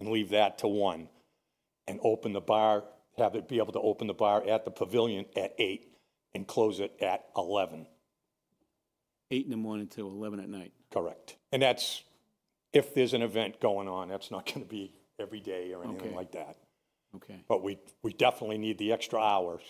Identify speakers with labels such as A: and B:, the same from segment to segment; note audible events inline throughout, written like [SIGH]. A: and leave that to one, and open the bar, have it be able to open the bar at the pavilion at eight and close it at eleven.
B: Eight in the morning till 11 at night.
A: Correct. And that's, if there's an event going on, that's not going to be every day or anything
B: Okay.
A: like that.
B: Okay,
A: But we, we definitely need the extra hours.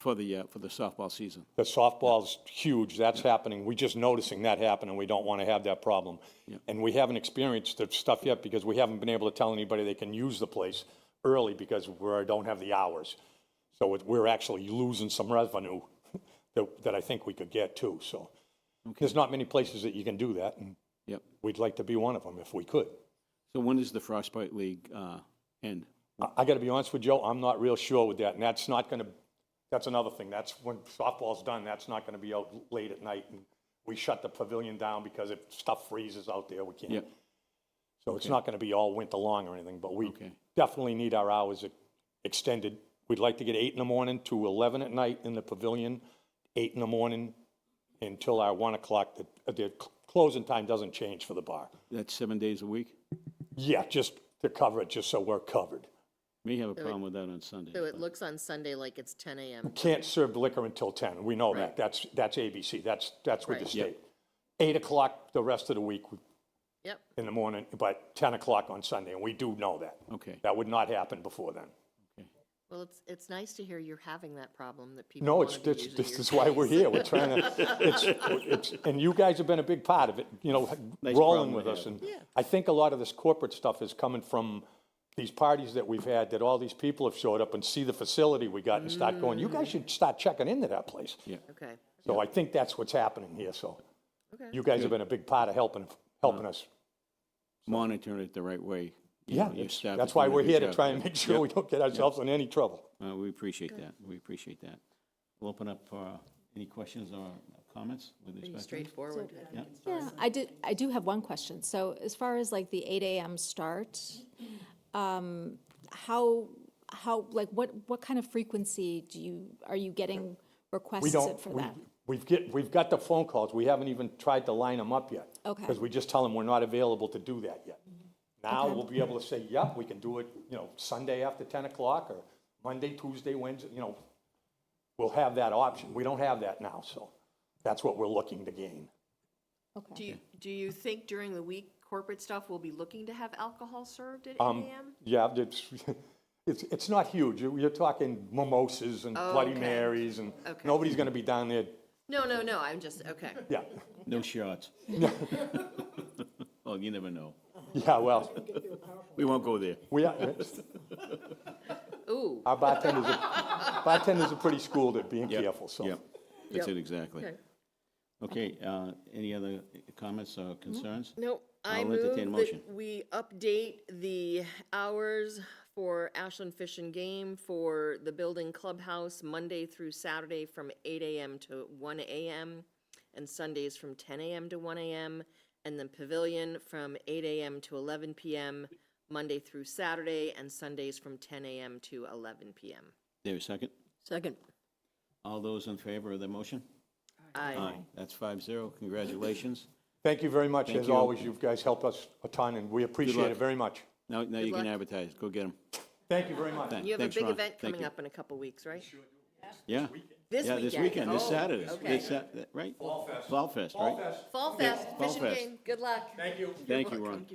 B: for the, uh, for the softball season.
A: The softball's huge, that's happening. We're just noticing that happen, and we don't want to have that problem. And we haven't experienced the stuff yet because we haven't been able to tell anybody they can use the place early because we don't have the hours. So it- we're actually losing some revenue [LAUGHS] that, that I think we could get too, so. There's not many places that you can do that, and
B: Yep.
A: we'd like to be one of them if we could.
B: So when does the Frostbite League uh, end?
A: I- I got to be honest with Joe, I'm not real sure with that, and that's not going to, that's another thing, that's when softball's done, that's not going to be out late at night, and we shut the pavilion down because if stuff freezes out there, we can't.
B: Yep,
A: So it's not going to be all winter long or anything, but we
B: Okay.
A: definitely need our hours e- extended. We'd like to get eight in the morning to 11 at night in the pavilion, eight in the morning until our 1 o'clock, the, the cl- closing time doesn't change for the bar.
B: that's seven days a week?
A: Yeah, just to cover it, just so we're covered.
B: May have a problem with that on Sunday.
C: So it looks on Sunday like it's ten AM.
A: can't serve liquor until 10, we know that,
C: Right.
A: that's, that's ABC, that's, that's with the
C: Right.
B: Yep.
A: state. 8 o'clock the rest of the week
C: Yep,
A: in the morning, but 10 o'clock on Sunday, and we do know that.
B: Okay,
A: That would not happen before then.
C: well, it's, it's nice to hear you're having that problem that people
A: No, it's,
C: wanna be
A: this,
C: using
A: this
C: your
A: is why we're
C: space.
A: here, we're trying to, it's, it's, and you guys have been a big part of it, you know,
B: problem
A: rolling
B: to
A: with us.
B: have.
A: And I think a lot of this corporate stuff is coming from these parties that we've had, that all these people have showed up and see the facility we got and start going, you guys should start checking into that place.
B: Mm. yeah,
C: [LAUGHS] Okay,
A: So I think that's what's happening here, so.
C: okay.
A: You guys have been a big part of helping, helping us.
B: monitoring it the right way. You know,
A: Yeah,
B: your
A: that's-
B: staff
A: that's
B: is
A: why
B: doing a
A: we're
B: good
A: here to
B: job.
A: try and make sure we don't get ourselves in any trouble.
B: Uh, We appreciate that, we appreciate that. We'll open up for any questions or comments with respect
C: Pretty
B: to this.
C: straightforward.
D: Yeah, I did, I do have one question. So as far as like the eight AM start, um, how, how, like, what, what kind of frequency do you, are you getting
A: We
D: requests
A: don't,
D: for
A: we-
D: that?
A: we've get, we've got the phone calls, we haven't even tried to line them up yet.
D: Okay. Mm-hmm.
A: Because we just tell them we're not available to do that yet. Now we'll be able to say, yep, we can do it, you know, Sunday after 10 o'clock or Monday, Tuesday, Wednesday, you know. We'll have that option. We don't have that now, so that's what we're looking to gain.
C: Do you, do you think during the week corporate stuff will be looking to have alcohol served at eight
A: Um,
C: AM?
A: Yeah, it's, [LAUGHS] it's, it's not huge. You're, you're talking mimosas and
C: Oh,
A: Bloody
C: okay.
A: Marys and
C: Okay.
A: nobody's gonna be down there,
C: No, no, no, I'm just, okay.
A: yeah, [LAUGHS]
B: No shots. [LAUGHS] Oh, you never know.
A: yeah, well,
B: We won't go there.
A: we, are-
C: Ooh,
A: our bartenders, are- bartenders are pretty schooled at being
B: Yep,
A: careful, so.
B: Yep, that's
C: Yep.
B: it, exactly.
C: Okay.
B: Okay, uh, any other comments or concerns?
C: no, I
B: I'll
C: move
B: entertain a
C: that
B: motion.
C: we update the hours for Ashland Fish and Game for the building clubhouse Monday through Saturday from eight AM to one AM and Sundays from ten AM to one AM and then pavilion from eight AM to eleven PM, Monday through Saturday and Sundays from ten AM to eleven PM.
B: There, a second?
C: Second.
B: All those in favor of the motion?
C: Aye.
B: That's five zero, congratulations.
A: Thank you very much.
B: Thank
A: As
B: you.
A: always, you guys help us a ton and we appreciate
B: luck.
A: it very much.
B: Now, now you can
C: luck.
B: advertise, go get them.
A: Thank you very much.
C: You have a big event coming up in a couple weeks, right?
B: Yeah.
C: This
B: Yeah, this weekend, this
C: Oh,
B: Saturday,
C: Okay.
B: this Sat- that- right? Fall Fest. Fall Fest, right?
C: Fall Fest,
B: Fall
C: Fish and
B: Fest.
C: Game, good luck.
A: Thank you.
B: Thank you, Ron.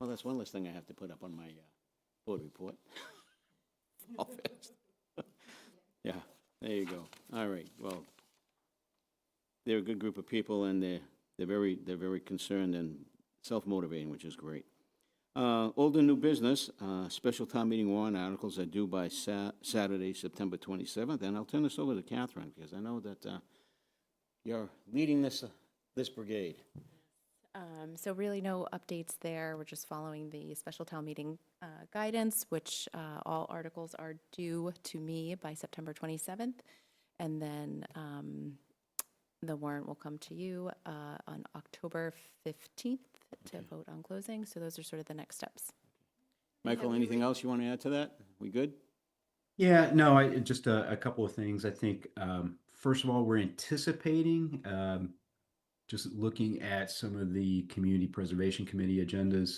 B: Well, that's one less thing I have to put up on my uh, board report. [LAUGHS] Fall Fest. [LAUGHS] Yeah, there you go. All right, well, they're a good group of people, and they're, they're very, they're very concerned and self-motivating, which is great. Uh, Old and new business, uh, special town meeting warrant articles are due by Sa- Saturday, September 27th, and I'll turn this over to Catherine, because I know that uh, you're leading this, uh, this brigade.
E: Um, So really no updates there. We're just following the special town meeting uh, guidance, which uh, all articles are due to me by September 27th. And then um, the warrant will come to you uh, on October 15th to vote on closing. So those are sort of the next steps.
B: Michael, anything else you want to add to that? We good?
F: Yeah, no, I just a, a couple of things. I think um, first of all, we're anticipating um, just looking at some of the Community Preservation Committee agendas,